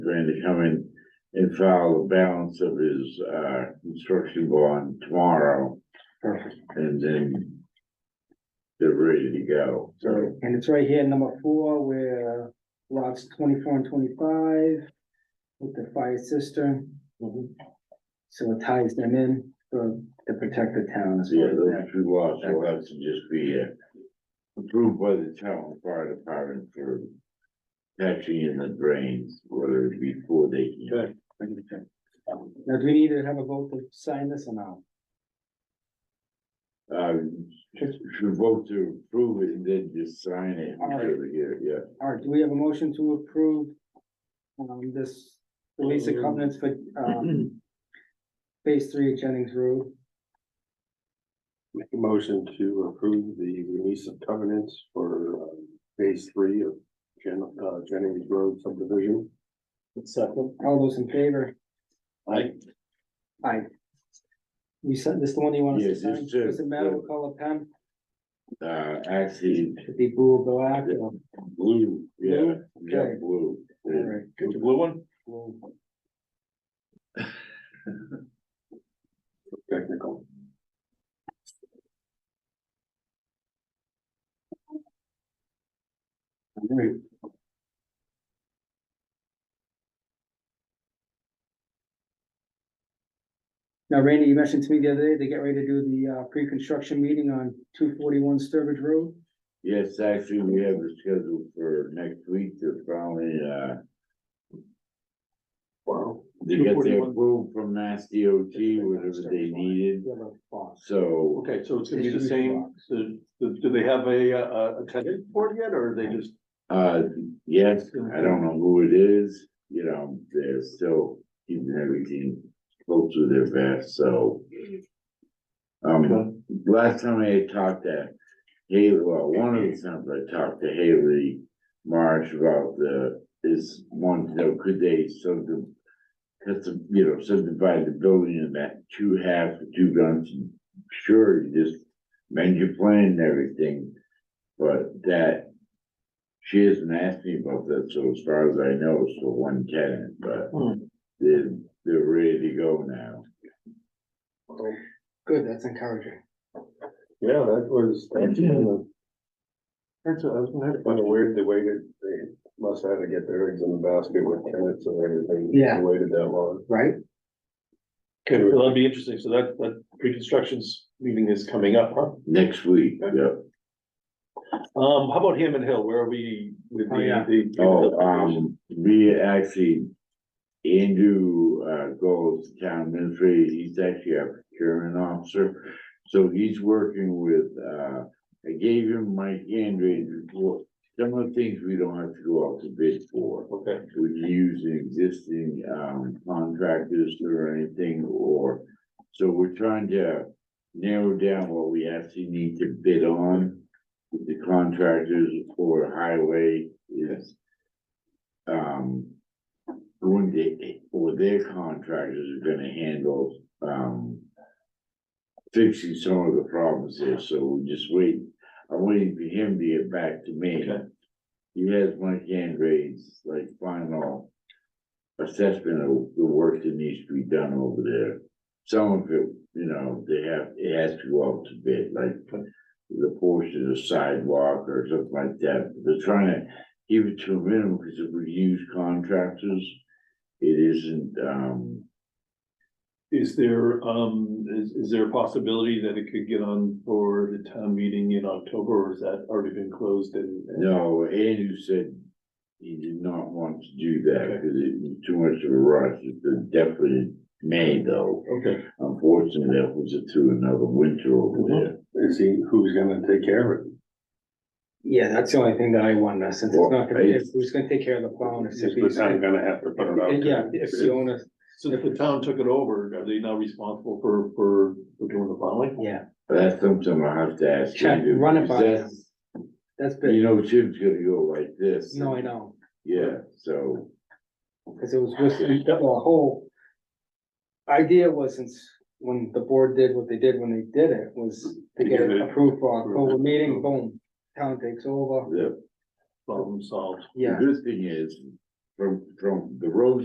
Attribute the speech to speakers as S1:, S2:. S1: plan to come in and file the balance of his, uh, construction bond tomorrow
S2: Perfect.
S1: and then they're ready to go.
S2: So, and it's right here, number four, where lots twenty-four and twenty-five with the fire cistern.
S1: Mm-hmm.
S2: So it ties them in to, to protect the town as
S1: Yeah,
S2: well.
S1: those two lots will have to just be uh, approved by the town fire department for patching in the drains, whether it be four day.
S2: Good. Now, do we need to have a vote to sign this or not?
S1: Uh, should vote to approve it and then just sign it. after the year, Yeah,
S2: All right, do we have a motion to approve um, this release of covenants for, um, phase three of Jennings Road?
S3: Make a motion to approve the release of covenants for um, phase three of Jen, uh, Jennings Road subdivision.
S2: Second. All those in favor?
S3: Aye.
S2: Aye. You said, this the one you want us to
S1: Yes,
S2: sign?
S1: it's, uh,
S2: Does it matter what color pen?
S1: uh, actually,
S2: Should be blue or black?
S1: Yeah.
S2: All
S1: blue, yeah, yeah,
S2: Okay.
S1: blue.
S2: right.
S3: The blue one? Technical.
S2: All right. Now, Randy, you mentioned to me the other day, they get ready to do the uh pre-construction meeting on two forty-one Sturbridge Road.
S1: Yes, actually, we have it scheduled for next week to finally, uh,
S3: Wow.
S1: to get the
S3: 241.
S1: approval from Mass DOT, whatever they needed. So
S3: Okay, so it's gonna be the same, the, the- do they have a, uh, a tenant board yet, or are they just?
S1: Uh, yes, I don't know who it is, you know, they're still keeping everything close to their vest, so. Um, last time I had talked to Haley, well, one of the times I talked to Haley Marsh about the, this one, you know, could they sort of. Cause, you know, subdivide the building in that two halves, two guns, sure, you just mend your plan and everything. But that she hasn't asked me about that, so as far as I know, it's for one tenant, but
S3: Hmm.
S1: they're, they're ready to go now.
S2: Good, that's encouraging.
S3: Yeah, that was, that's, uh, that's, that's kind of weird, the way that they must have to get their eggs in the basket with tenants and everything.
S2: Yeah.
S3: They Waited that long.
S2: Right?
S3: Okay, well, that'd be interesting, so that, that pre-construction's meeting is coming up, huh?
S1: Next week, yep.
S3: Um, how about Hammond Hill, where are we with
S2: Oh, yeah.
S3: the, the?
S1: Oh, um, we actually, Andrew, uh, goes to town administrator, he's actually our procurement officer. So he's working with, uh, I gave him Mike Andrews report, some of the things we don't have to go out to bid for.
S3: Okay,
S1: we use the existing um contractors or anything or. So we're trying to narrow down what we actually need to bid on with the contractors for highway is. Um. When they, or their contractors are gonna handle um. Fixing some of the problems here, so we're just wait, I'm waiting for him to get back to me.
S3: Okay.
S1: He has my hand raised, like final assessment of the work that needs to be done over there. Some of it, you know, they have, it has to go out to bid, like the portion of sidewalk or something like that. They're trying to keep it to a minimum because if we use contractors, it isn't, um,
S3: is there, um, is, is there a possibility that it could get on for the town meeting in October, or is that already been closed and? and-
S1: no, Andrew said he did not want to do that
S3: Okay.
S1: because it was too much of a rush. It's been definitely May though.
S3: Okay,
S1: Unfortunately, that was it through another winter
S2: Uh-huh.
S1: over there.
S3: is he, who's gonna take care of it?
S2: Yeah, that's the only thing that I wonder, since it's not gonna, be-
S1: Well, I-
S2: who's gonna take care of the bonus?
S3: Is the town gonna have to put it out?
S2: Yeah, if the owner,
S3: So if the town took it over, are they now responsible for, for, for doing the filing?
S2: yeah,
S1: But That's something I have to ask.
S2: Check,
S1: Andrew,
S2: run it
S1: because
S2: by
S1: that's-
S2: that's big.
S1: You know, Jim's gonna go like this.
S2: No, I know,
S1: Yeah, so.
S2: because it was with, the whole idea was since when the board did what they did when they did it, was to
S3: To
S2: get
S3: get
S2: it
S3: it-
S2: approved for October meeting, boom, town takes over,
S1: The,
S3: Problem solved.
S1: the
S2: yeah.
S1: good thing is, from, from the road